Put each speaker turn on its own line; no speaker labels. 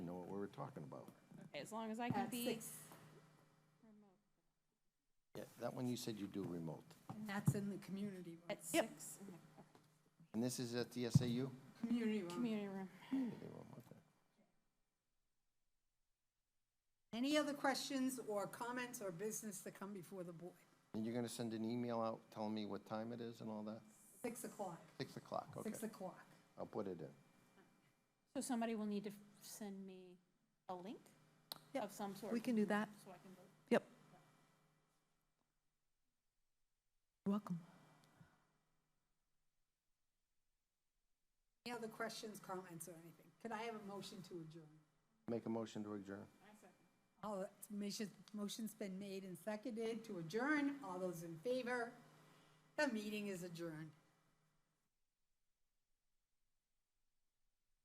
talking about.
As long as I can
At
be,
six,
Yeah, that one you said you do remote.
and that's in the community room.
at six, in the
And this is at the SAU?
Community room.
community room.
Hmm.
Any other questions or comments or business that come before the board?
And you're gonna send an email out telling me what time it is and all that?
Six o'clock,
Six o'clock, okay.
six o'clock.
I'll put it in.
So somebody will need to f- send me a link
Yep,
of some sort.
We can do that.
So I can vote.
Yep. You're Welcome.
Any other questions, comments, or anything? Could I have a motion to adjourn?
Make a motion to adjourn.
All, motion- motion's been made and seconded to adjourn. All those in favor? The meeting is adjourned.